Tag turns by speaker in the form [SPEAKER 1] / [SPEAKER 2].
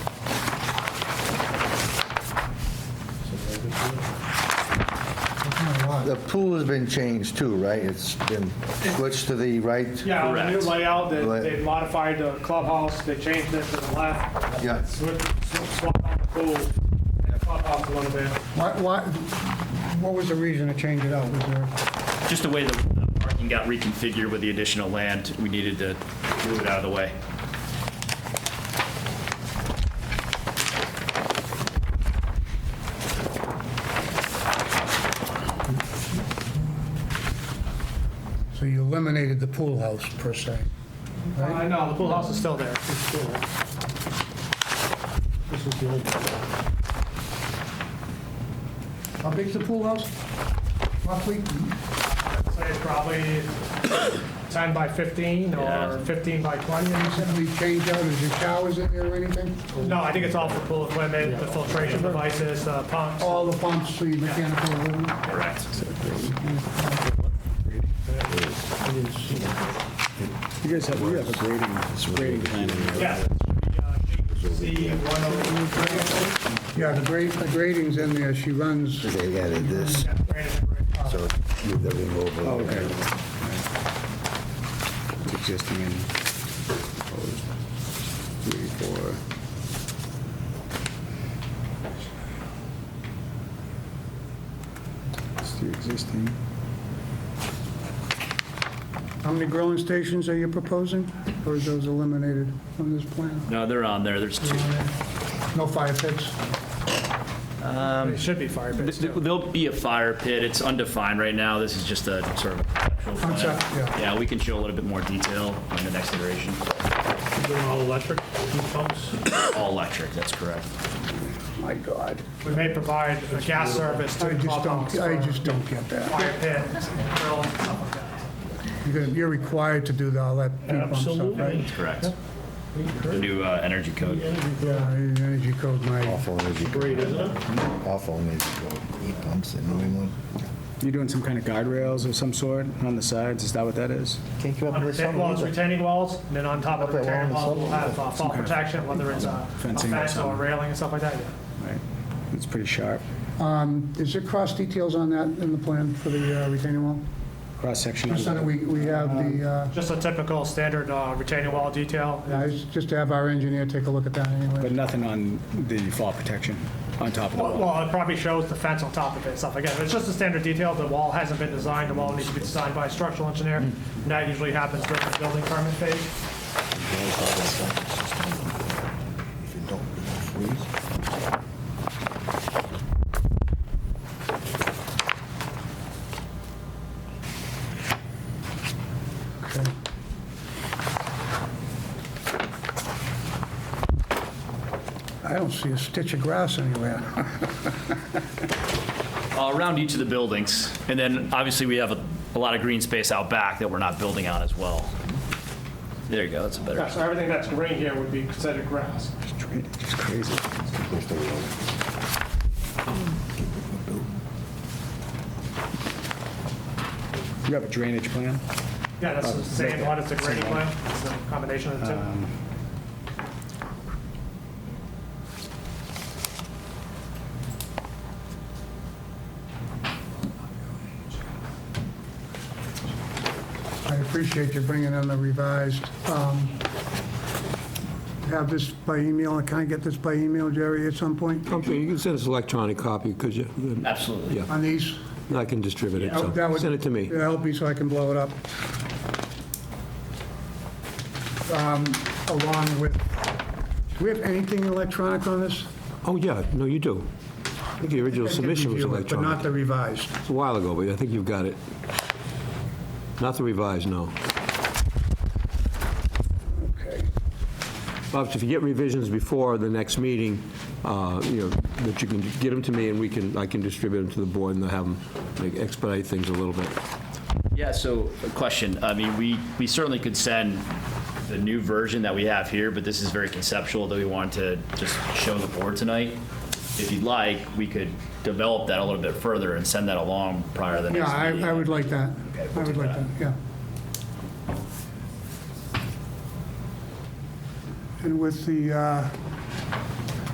[SPEAKER 1] the pool has been changed too, right? It's been switched to the right?
[SPEAKER 2] Yeah, on the new
[SPEAKER 3] Correct.
[SPEAKER 2] layout, they,
[SPEAKER 1] Lay-
[SPEAKER 2] they modified the clubhouse, they changed it to the left.
[SPEAKER 1] Yeah.
[SPEAKER 2] Switch, switch, swap out the pool, and clubhouse a little bit.
[SPEAKER 4] Why, why, what was the reason to change it out? Was there,
[SPEAKER 3] Just the way the the parking got reconfigured with the additional land, we needed to move it out of the way.
[SPEAKER 4] so you eliminated the pool house per se?
[SPEAKER 2] Uh, no, the pool house is still there. It's still there. This is the old.
[SPEAKER 4] How big's the pool house? Roughly?
[SPEAKER 2] Say it's probably 10 by 15 or
[SPEAKER 3] Yeah.
[SPEAKER 2] 15 by 20. or something.
[SPEAKER 4] Something we changed out, is there showers in there or anything?
[SPEAKER 2] No, I think it's all for pool equipment, the filtration devices, uh, pumps.
[SPEAKER 4] All the pumps, so you mechanical, equipment?
[SPEAKER 3] Correct.
[SPEAKER 5] You guys have, you have a grading, grading plan in there.
[SPEAKER 2] Yes. uh, C oh
[SPEAKER 4] yeah, the grade, the grading's in there, she runs,
[SPEAKER 1] They added this, so moved everything over.
[SPEAKER 5] Okay. Existing and proposed. Three, four. It's the existing.
[SPEAKER 4] how many grilling stations are you proposing? Or is those eliminated on this plan?
[SPEAKER 3] No, they're on there, there's two.
[SPEAKER 4] No fire pits?
[SPEAKER 3] um,
[SPEAKER 2] It should be fire pits
[SPEAKER 3] Th-
[SPEAKER 2] too.
[SPEAKER 3] There'll be a fire pit, it's undefined right now, this is just a sort of. conceptual plan.
[SPEAKER 4] Concept, yeah.
[SPEAKER 3] Yeah, we can show a little bit more detail in the next iteration.
[SPEAKER 2] Doing all electric pumps.
[SPEAKER 3] All electric, that's correct.
[SPEAKER 4] My God.
[SPEAKER 2] We may provide a gas service to
[SPEAKER 4] I
[SPEAKER 2] the
[SPEAKER 4] just
[SPEAKER 2] clubhouse.
[SPEAKER 4] don't, I just don't get that.
[SPEAKER 2] Fire pit, grill, and stuff like that.
[SPEAKER 4] You're gonna- You're required to do all that. heat pump stuff, right?
[SPEAKER 3] That's correct. The new uh, energy code.
[SPEAKER 4] Yeah, energy code, my,
[SPEAKER 1] Awful energy. Great, isn't it? Awful energy. Heat pumps in New England.
[SPEAKER 5] You're doing some kind of guardrails of some sort on the sides, is that what that is?
[SPEAKER 1] Can't come up
[SPEAKER 2] On
[SPEAKER 1] with
[SPEAKER 2] retain- Well, it's
[SPEAKER 1] something either.
[SPEAKER 2] retaining walls, and then on top of the
[SPEAKER 1] Up that
[SPEAKER 2] retaining
[SPEAKER 1] wall
[SPEAKER 2] wall,
[SPEAKER 1] on the
[SPEAKER 2] we'll
[SPEAKER 1] side.
[SPEAKER 2] have uh, fall protection, whether it's a a
[SPEAKER 5] Fencing or
[SPEAKER 2] fence or a
[SPEAKER 5] something.
[SPEAKER 2] railing and stuff like that. yeah.
[SPEAKER 5] Right. It's pretty sharp.
[SPEAKER 4] is there cross details on that in the plan for the uh, retaining wall?
[SPEAKER 5] Cross-section.
[SPEAKER 4] Just so that we, we have the, uh,
[SPEAKER 2] Just a typical standard uh, retaining wall detail.
[SPEAKER 4] yeah, it's just to have our engineer take a look at that
[SPEAKER 5] But
[SPEAKER 4] anyway.
[SPEAKER 5] nothing on the fall protection on top of the
[SPEAKER 2] Well,
[SPEAKER 5] wall.
[SPEAKER 2] well, it probably shows the fence on top of it and stuff. Again, it's just a standard detail. The wall hasn't been designed. The wall needs to be designed by a structural engineer. And that usually happens during the building permit phase.
[SPEAKER 1] If you don't, it'll freeze.
[SPEAKER 4] I don't see a stitch of grass anywhere.
[SPEAKER 3] Uh, Around each of the buildings, and then obviously we have a- a lot of green space out back that we're not building on as well. There you go, that's a better.
[SPEAKER 2] Yeah, so everything that's green here would be considered grass.
[SPEAKER 5] It's crazy. You have a drainage plan?
[SPEAKER 2] Yeah, that's the same one. It's a grading plan. It's a combination of the two.
[SPEAKER 4] I appreciate you bringing in the revised, um, have this by email, can I get this by email, Jerry, at some point?
[SPEAKER 6] Okay, you can send us electronic copy, because you,
[SPEAKER 3] Absolutely.
[SPEAKER 6] yeah,
[SPEAKER 4] On these?
[SPEAKER 6] I can distribute it,
[SPEAKER 4] That
[SPEAKER 6] so
[SPEAKER 4] would-
[SPEAKER 6] send it to me.
[SPEAKER 4] It'll help me so I can blow it up. Um, Along with, do we have anything electronic on this?
[SPEAKER 6] Oh, yeah, no, you do. I think the original submission was
[SPEAKER 4] But not
[SPEAKER 6] electronic.
[SPEAKER 4] the revised.
[SPEAKER 6] It's a while ago, but I think you've got it. Not the revised, no.
[SPEAKER 4] Okay.
[SPEAKER 6] Bob, if you get revisions before the next meeting, uh, you know, that you can get them to me, and we can, I can distribute them to the board, and they'll have them like, expedite things a little bit.
[SPEAKER 3] Yeah, so a question. I mean, we, we certainly could send the new version that we have here, but this is very conceptual that we wanted to just show the board tonight. If you'd like, we could develop that a little bit further and send that along prior to the
[SPEAKER 4] Yeah,
[SPEAKER 3] next
[SPEAKER 4] I
[SPEAKER 3] meeting.
[SPEAKER 4] I would like that.
[SPEAKER 3] Okay,
[SPEAKER 4] I
[SPEAKER 3] we'll
[SPEAKER 4] would
[SPEAKER 3] do
[SPEAKER 4] like that,
[SPEAKER 3] that.
[SPEAKER 4] yeah. And with the, uh,